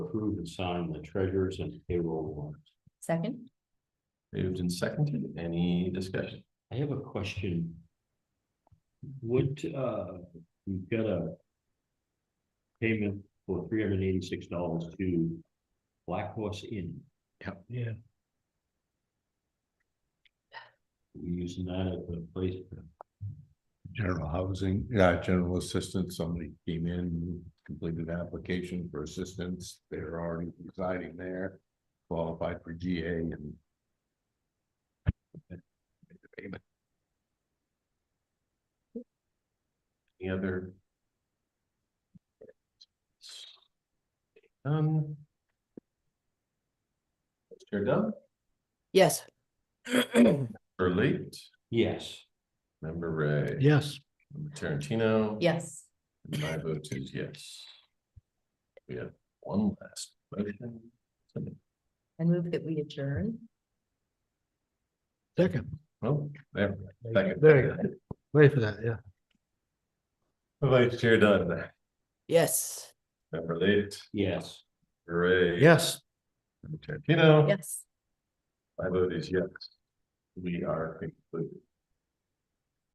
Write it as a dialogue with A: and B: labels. A: approve and sign the treasurer's and payroll warrants.
B: Second?
C: Moved and seconded. Any discussion?
A: I have a question. Would, uh, we've got a payment for three hundred and eighty-six dollars to Black Horse Inn.
C: Yep.
A: Yeah. We using that as a place for
D: General housing, yeah, general assistance, somebody came in, completed an application for assistance, they're already residing there, qualified for GA and.
C: Any other? Um. Chair Dunn,
B: Yes.
C: or late,
A: Yes,
C: member Ray.
E: Yes,
C: Member Tarantino.
B: Yes.
C: And my vote is yes. We have one last motion.
B: I move that we adjourn.
E: second.
C: Well, Oh, there.
E: There you go. Wait for that, yeah.
C: Vice Chair Dunn,
B: Yes.
C: member late,
A: yes.
C: Ray.
E: Yes.
C: Member Tarantino.
B: Yes.
C: My vote is yes. We are concluded.